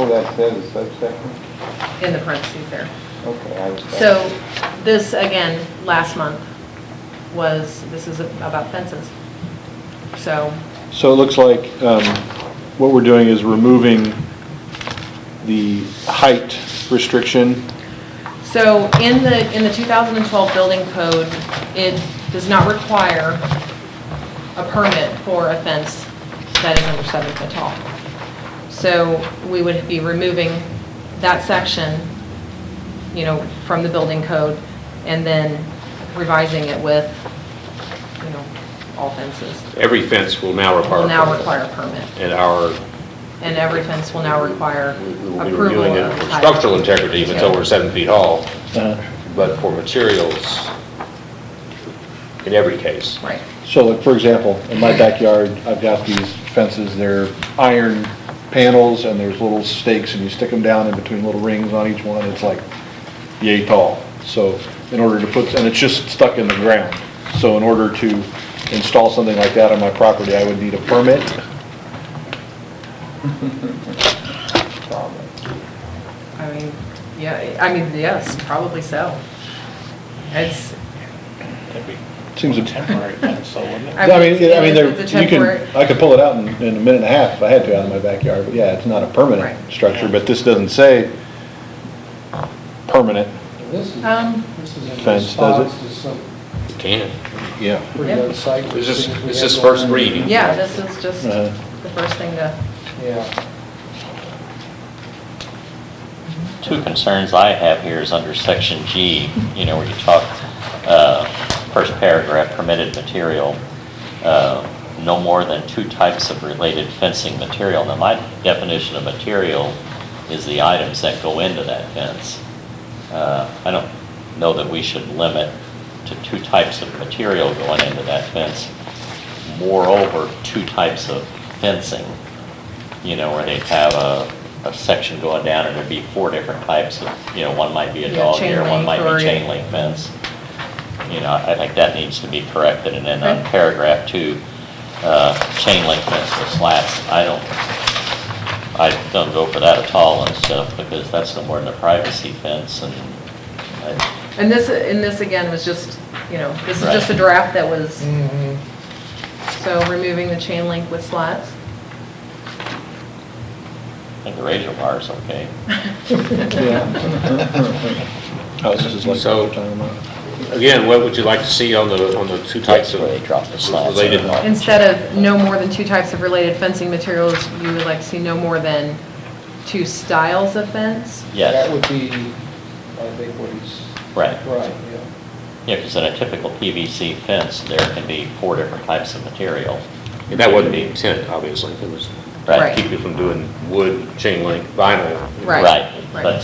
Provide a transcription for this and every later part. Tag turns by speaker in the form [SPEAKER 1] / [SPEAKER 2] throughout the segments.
[SPEAKER 1] Oh, that's it, a subsection?
[SPEAKER 2] in the parentheses there.
[SPEAKER 1] Okay. I was-
[SPEAKER 2] So this, again, last month was, this is about fences. So,
[SPEAKER 3] So it looks like um, what we're doing is removing the height restriction.
[SPEAKER 2] so in the, in the 2012 building code, it does not require a permit for a fence that is under seven foot tall. So we would be removing that section, you know, from the building code and then revising it with, you know, all fences.
[SPEAKER 4] Every fence will now require.
[SPEAKER 2] Will now
[SPEAKER 4] a permit.
[SPEAKER 2] require a permit.
[SPEAKER 4] And our,
[SPEAKER 2] And every fence will now require
[SPEAKER 4] we will be
[SPEAKER 2] approval
[SPEAKER 4] reviewing
[SPEAKER 2] of
[SPEAKER 4] it for
[SPEAKER 2] height.
[SPEAKER 4] structural integrity if it's over seven feet tall,
[SPEAKER 3] Uh,
[SPEAKER 4] but for materials, in every case.
[SPEAKER 2] Right,
[SPEAKER 3] So like, for example, in my backyard, I've got these fences, they're iron panels, and there's little stakes, and you stick them down in between little rings on each one, it's like yay tall. So in order to put, and it's just stuck in the ground. So in order to install something like that on my property, I would need a permit.
[SPEAKER 1] Probably.
[SPEAKER 2] I mean, yeah, I mean, yes, probably so. It's,
[SPEAKER 3] Seems a
[SPEAKER 5] temporary fence, so wouldn't it?
[SPEAKER 2] I
[SPEAKER 3] I
[SPEAKER 2] mean,
[SPEAKER 3] mean, I mean, there,
[SPEAKER 2] it's a
[SPEAKER 3] you can,
[SPEAKER 2] temporary-
[SPEAKER 3] I could pull it out in, in a minute and a half if I had to out of my backyard, but yeah, it's not a
[SPEAKER 2] Right.
[SPEAKER 3] permanent structure, but this doesn't say permanent.
[SPEAKER 5] This is,
[SPEAKER 2] um,
[SPEAKER 5] this is in
[SPEAKER 3] Fence, does it?
[SPEAKER 5] response to some
[SPEAKER 4] You can.
[SPEAKER 3] Yeah.
[SPEAKER 5] pretty
[SPEAKER 2] Yeah.
[SPEAKER 5] good site.
[SPEAKER 4] This is-
[SPEAKER 5] things we
[SPEAKER 4] this
[SPEAKER 5] had
[SPEAKER 4] is
[SPEAKER 5] going
[SPEAKER 4] first
[SPEAKER 5] on.
[SPEAKER 4] reading.
[SPEAKER 2] yeah, this is just
[SPEAKER 3] Uh-huh.
[SPEAKER 2] the first thing to,
[SPEAKER 5] Yeah,
[SPEAKER 6] Two concerns I have here is under section G, you know, where you talk, uh, first paragraph, permitted material, uh, no more than two types of related fencing material. Now, my definition of material is the items that go into that fence. Uh, I don't know that we should limit to two types of material going into that fence. Moreover, two types of fencing you know, where they'd have a, a section going down and there'd be four different types of, you know, one might be a
[SPEAKER 2] Yeah,
[SPEAKER 6] dog
[SPEAKER 2] chain
[SPEAKER 6] ear, one
[SPEAKER 2] link
[SPEAKER 6] might
[SPEAKER 2] or-
[SPEAKER 6] be chain link fence. You know, I think that needs to be corrected. And then on
[SPEAKER 2] Okay.
[SPEAKER 6] paragraph two, uh, chain link fence with slats, I don't, I don't go for that at all and stuff because that's no more than a privacy fence and I,
[SPEAKER 2] and this, and this again was just, you know, this is
[SPEAKER 6] Right.
[SPEAKER 2] just a draft that was,
[SPEAKER 5] Mhm.
[SPEAKER 2] so removing the chain link with slats.
[SPEAKER 6] I think the razor wire's okay.
[SPEAKER 3] Oh, this is like. uh,
[SPEAKER 4] So- Again, what would you like to see on the, on the two types of
[SPEAKER 6] Where they drop the slats.
[SPEAKER 4] related?
[SPEAKER 2] Instead of no more than two types of related fencing materials, you would like to see no more than two styles of fence?
[SPEAKER 5] that
[SPEAKER 6] Yeah,
[SPEAKER 5] would be, I think what he's,
[SPEAKER 6] right.
[SPEAKER 5] right, yeah.
[SPEAKER 6] Yeah, because in a typical PVC fence, there can be four different types of material.
[SPEAKER 4] And that wasn't the intent, obviously, it was to
[SPEAKER 2] Right.
[SPEAKER 4] keep you from doing wood, chain link, vinyl.
[SPEAKER 2] Right.
[SPEAKER 6] Right,
[SPEAKER 2] Right.
[SPEAKER 6] but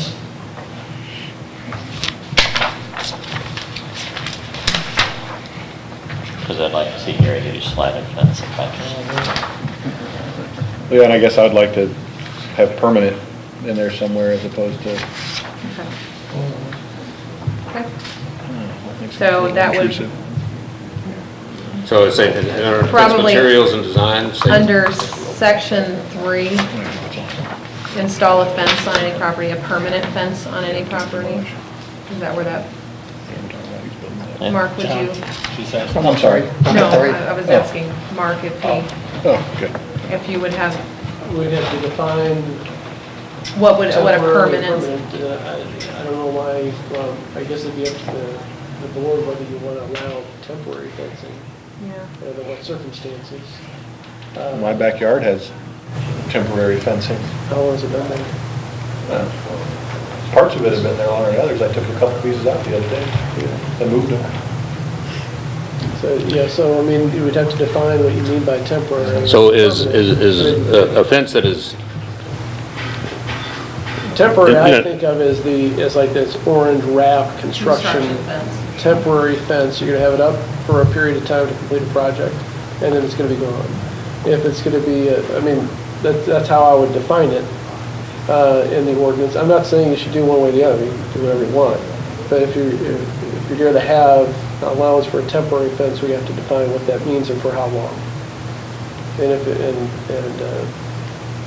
[SPEAKER 6] Because I'd like to see Gary do sliding fence if I can.
[SPEAKER 5] Mm-hmm.
[SPEAKER 3] Yeah, and I guess I'd like to have permanent in there somewhere as opposed to.
[SPEAKER 2] Okay.
[SPEAKER 5] Mhm.
[SPEAKER 2] Okay.
[SPEAKER 3] what makes it
[SPEAKER 2] So
[SPEAKER 3] feel
[SPEAKER 2] that would-
[SPEAKER 3] intrusive.
[SPEAKER 4] So it's, a- and our fence
[SPEAKER 2] Probably
[SPEAKER 4] materials and design. say-
[SPEAKER 2] Under section three, install a fence on any property, a permanent fence on any property? Is that where that,
[SPEAKER 6] Yeah.
[SPEAKER 2] Mark, would you?
[SPEAKER 6] Oh,
[SPEAKER 3] I'm sorry.
[SPEAKER 2] No, I I was asking Mark if he,
[SPEAKER 3] Oh, good.
[SPEAKER 2] if you would have,
[SPEAKER 7] We'd have to define.
[SPEAKER 2] what would, what a
[SPEAKER 7] temporary
[SPEAKER 2] permanent,
[SPEAKER 7] permanent, uh, I I don't know why, well, I guess it'd be up to the, the board whether you want to allow temporary fencing,
[SPEAKER 2] yeah.
[SPEAKER 7] under what circumstances. Uh,
[SPEAKER 3] My backyard has temporary fencing. Uh,
[SPEAKER 7] How long has it been there?
[SPEAKER 3] Parts of it have been there longer than others. I took a couple pieces out the other day. I moved them.
[SPEAKER 7] So, yeah, so, I mean, you would have to define what you mean by temporary. and
[SPEAKER 4] So is, is,
[SPEAKER 7] permanent.
[SPEAKER 4] is a a fence that is
[SPEAKER 7] Temporary,
[SPEAKER 4] Yeah.
[SPEAKER 7] I think of as the, as like this orange wrap
[SPEAKER 2] construction uh,
[SPEAKER 7] construction
[SPEAKER 2] fence?
[SPEAKER 7] temporary fence, you're gonna have it up for a period of time to complete a project, and then it's gonna be gone. If it's gonna be, uh, I mean, that, that's how I would define it, uh, in the ordinance. I'm not saying you should do one way or the other, you can do whatever you want. But if you're, if if you're gonna have allowance for a temporary fence, we have to define what that means and for how long. And if, it- and, and, uh,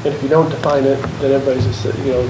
[SPEAKER 7] And if you don't define it, then everybody's, just, you know,